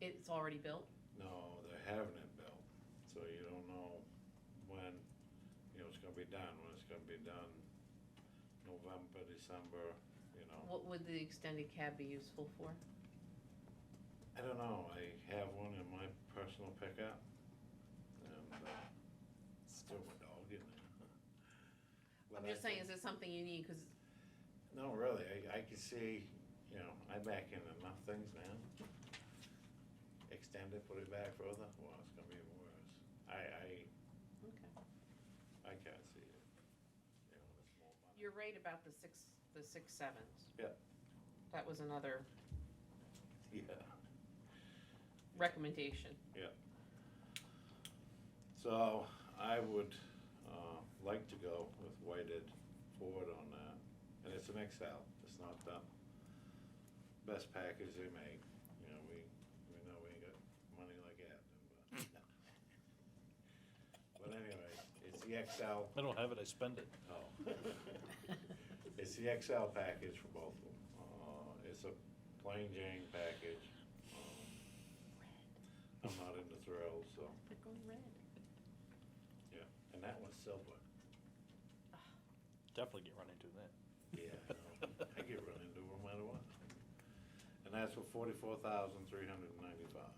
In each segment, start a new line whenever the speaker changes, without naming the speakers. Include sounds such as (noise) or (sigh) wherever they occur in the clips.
it's already built?
No, they're having it built, so you don't know when, you know, it's gonna be done, when it's gonna be done. November, December, you know,
What would the extended cab be useful for?
I don't know, I have one in my personal pickup. And, uh, it's still my dog in (laughs) there.
I'm
But I
just saying,
think-
is this something you need, cause
No, really, I, I can see, you know, I back into enough things now. Extend it, put it back further, well, it's gonna be even worse. I,
okay.
I, I can't see it. You know, it's more money.
you're right about the six, the six sevens.
Yep.
That was another
Yeah.
(laughs) recommendation.
So I would, uh, like to go with Whited forward on that, and it's an Excel, it's not the best package they make, you know, we, we know we ain't got money like that, but. But anyway, it's the Excel,
I don't have it, I spend it.
oh.
(laughs)
It's the XL package for both of them. Uh, it's a plain Jane package. Um, I'm not into thrills, so,
They're going red.
and that one's silver.
Definitely get run into that.
Yeah, I know. I get run into no matter what. And that's for forty-four thousand, three hundred and ninety-five.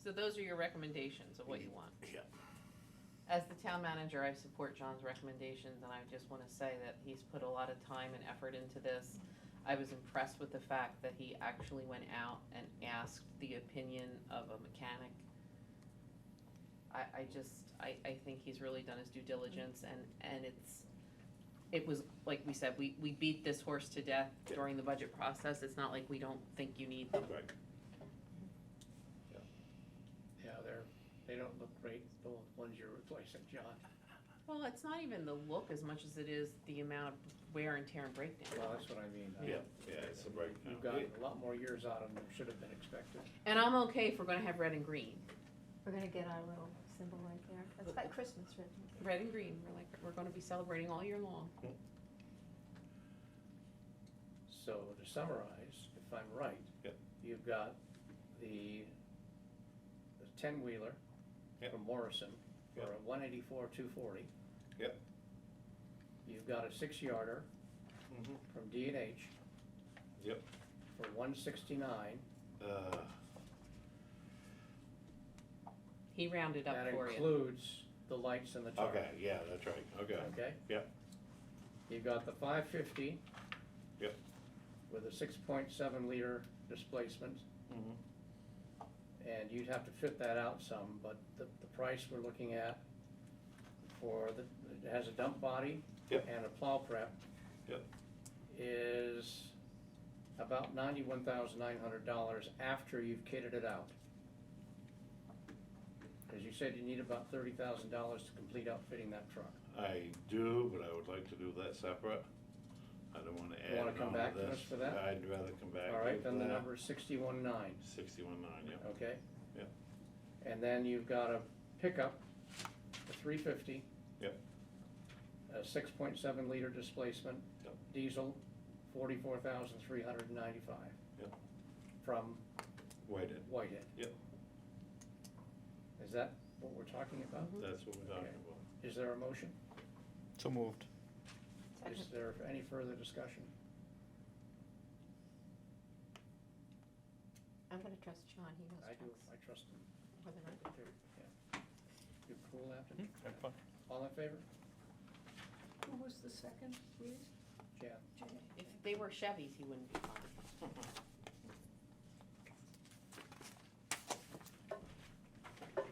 So those are your recommendations of what you want.
Yeah.
As the town manager, I support John's recommendations, and I just wanna say that he's put a lot of time and effort into this. I was impressed with the fact that he actually went out and asked the opinion of a mechanic. I, I just, I, I think he's really done his due diligence, and, and it's, it was, like we said, we, we beat this horse to death during the budget process, it's not like we don't think you need them.
Right.
Yeah, they're, they don't look great, the ones you're replacing, John.
Well, it's not even the look as much as it is the amount of wear and tear and breakdown.
Well, that's what I mean.
Yeah, yeah, it's a breakdown.
You've got a lot more years out of them than should have been expected.
And I'm okay if we're gonna have red and green.
We're gonna get our little symbol right there. It's got Christmas written.
Red and green, we're like, we're gonna be celebrating all year long.
So to summarize, if I'm right.
Yep.
You've got the, the ten-wheeler
Yep.
from Morrison for
Yep.
a one eighty-four, two forty.
Yep.
You've got a six-yarder
Mhm.
from D and H.
Yep.
For one sixty-nine.
Uh,
He rounded up for
That
you.
includes the lights and the tarp.
okay, yeah, that's right, okay.
Okay?
Yep.
You've got the five fifty.
Yep.
With a six point seven liter displacement,
Mhm.
and you'd have to fit that out some, but the, the price we're looking at for the, it has a dump body.
Yep.
And a plow prep.
Yep.
Is about ninety-one thousand nine hundred dollars after you've kitted it out. Cause you said you need about thirty thousand dollars to complete outfitting that truck.
I do, but I would like to do that separate. I don't wanna add
wanna
it
come
on to
back to us
this.
for that?
I'd rather come back.
All right,
with
then the
that.
number is sixty-one nine.
Sixty-one nine, yeah.
Okay?
Yep.
And then you've got a pickup, a three fifty.
Yep.
A six point seven liter displacement.
Yep.
Diesel, forty-four thousand three hundred and ninety-five.
Yep.
From
Waited,
Whitehead.
Yep.
Is that what we're talking about?
that's what we're talking
Okay.
about.
Is there a motion?
So moved.
Is there any further discussion?
I'm gonna trust John, he knows
I do,
trucks.
I trust them.
more than I do.
Yeah. You cool after?
Mm-hmm. Have
All in favor?
Who was the second, please?
Jan?
Jay?
If they were Chevys, he wouldn't be fine.
Okay,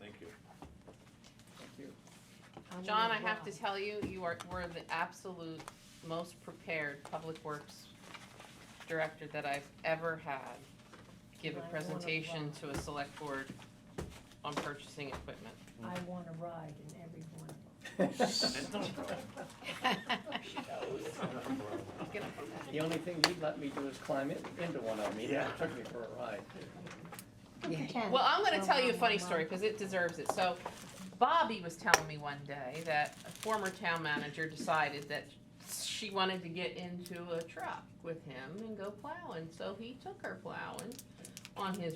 Thank you.
Thank you.
I'm
John, I
gonna
have to
walk.
tell you, you are, were the absolute most prepared public works director that I've ever had give a
Well, I wanna
presentation
laugh.
to a select board on purchasing equipment. (laughs)
I want to ride in every one of them.
(laughs)
Get up on that.
The only thing you'd let me do is climb in, into one of them, you know, it took me for a ride.
You can.
Well, I'm gonna
Well,
tell you a
well,
funny
well,
story, cause it deserves it, so Bobby was telling me one day that a former town manager decided that she wanted to get into a truck with him and go plowing, so he took her plowing on his